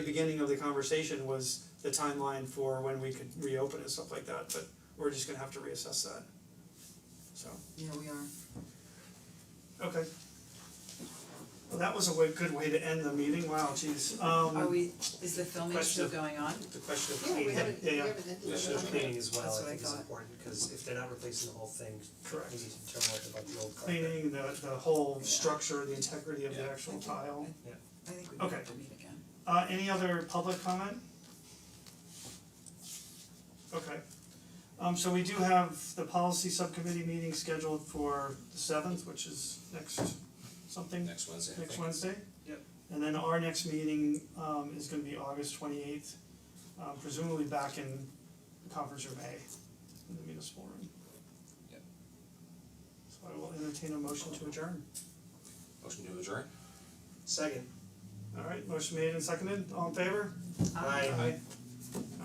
The beginning of the conversation was the timeline for when we could reopen and stuff like that, but we're just gonna have to reassess that. So, Yeah, we are. okay. Well, that was a way, good way to end the meeting, wow, geez, um. Are we, is the filming Question. still going on? The question of Yeah, we cleaning, haven't, we yeah, yeah, haven't ended The issue of it. cleaning as well, That's I what I think is thought. important, cause if they're not replacing the whole thing, Correct. we need to determine what about the old carpet. cleaning, the the whole Yeah. structure, the integrity of the Yeah. actual tile. I think we might have Okay. to meet again. Uh any other public comment? Okay, um so we do have the policy subcommittee meeting scheduled for the seventh, which is next something, next Wednesday, I next think. Wednesday? Yep. And then our next meeting um is gonna be August twenty eighth, um presumably back in conference room A in the municipal room. Yep. So I will entertain a motion to adjourn. Motion to adjourn? Second. Alright, motion made and seconded, all in favor? Um, Aye. Aye.